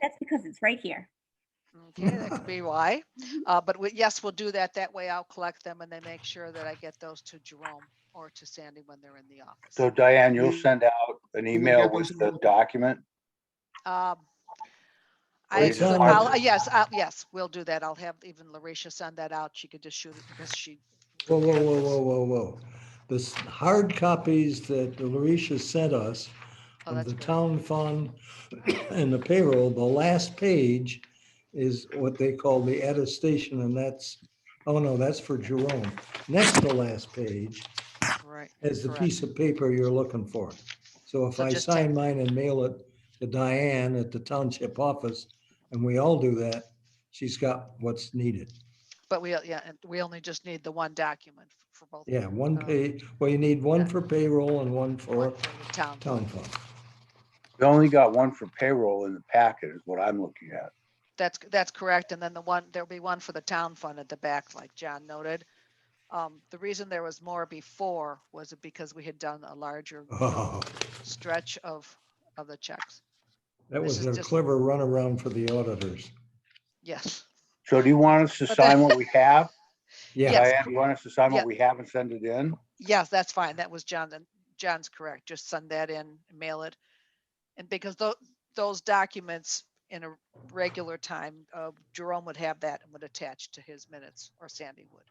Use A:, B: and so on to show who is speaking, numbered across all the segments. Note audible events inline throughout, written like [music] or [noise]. A: That's because it's right here.
B: Okay, that could be why. Uh, but we, yes, we'll do that. That way I'll collect them and then make sure that I get those to Jerome or to Sandy when they're in the
C: So
B: office.
C: Diane, you'll
D: Mm.
C: send out an
D: we
C: email
D: get
C: with
D: this
C: the
D: out?
C: document?
B: Um,
C: Or
B: I,
C: you just
B: I'll-
C: want-
B: yes, I'll- yes, we'll do that. I'll have even Larisha send that out. She could just shoot it because she,
D: Whoa, whoa, whoa, whoa, whoa, whoa. The s- hard copies that Larisha sent us
B: oh,
D: of
B: that's
D: the
B: good.
D: town fund [coughs] and the payroll, the last page is what they call the attestation, and that's, oh no, that's for Jerome. Next to last page
B: Right.
D: is the
B: Correct.
D: piece of paper you're looking for. So if
B: So
D: I
B: just take-
D: sign mine and mail it to Diane at the township office, and we all do that, she's got what's needed.
B: But we, yeah, and we only just need the one document f- for both.
D: Yeah, one
B: Oh.
D: pay, well, you need one
B: Yeah.
D: for payroll and one
B: one
D: for
B: for the Town.
D: town fund. [laughs]
C: We only got one for payroll in the packet is what I'm looking at.
B: That's, that's correct. And then the one, there'll be one for the town fund at the back, like John noted. Um, the reason there was more before was because we had done a larger
D: Oh,
B: stretch of, of the checks.
D: that
B: This
D: was
B: is
D: a
B: just-
D: clever runaround for the auditors.
B: Yes,
C: So do you want us to
B: But
C: sign what we have?
D: Yeah,
B: Yes.
C: Diane, you want us to sign
B: Yeah.
C: what we have and send it in?
B: yes, that's fine. That was John, and John's correct. Just send that in, mail it. And because tho- those documents in a regular time, uh, Jerome would have that and would attach to his minutes or Sandy would.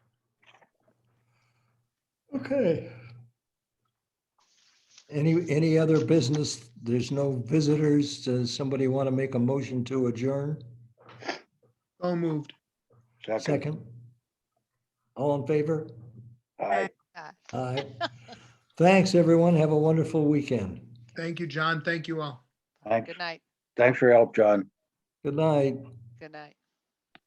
D: okay. Any, any other business? There's no visitors? Does somebody want to make a motion to adjourn?
E: So moved.
C: Second.
D: Second? All in favor?
C: Aye.
D: Aye. Thanks, everyone. Have a wonderful weekend.
E: Thank you, John. Thank you all.
C: Thanks,
B: Good night,
C: thanks for your help, John.
D: Good night.
B: good night.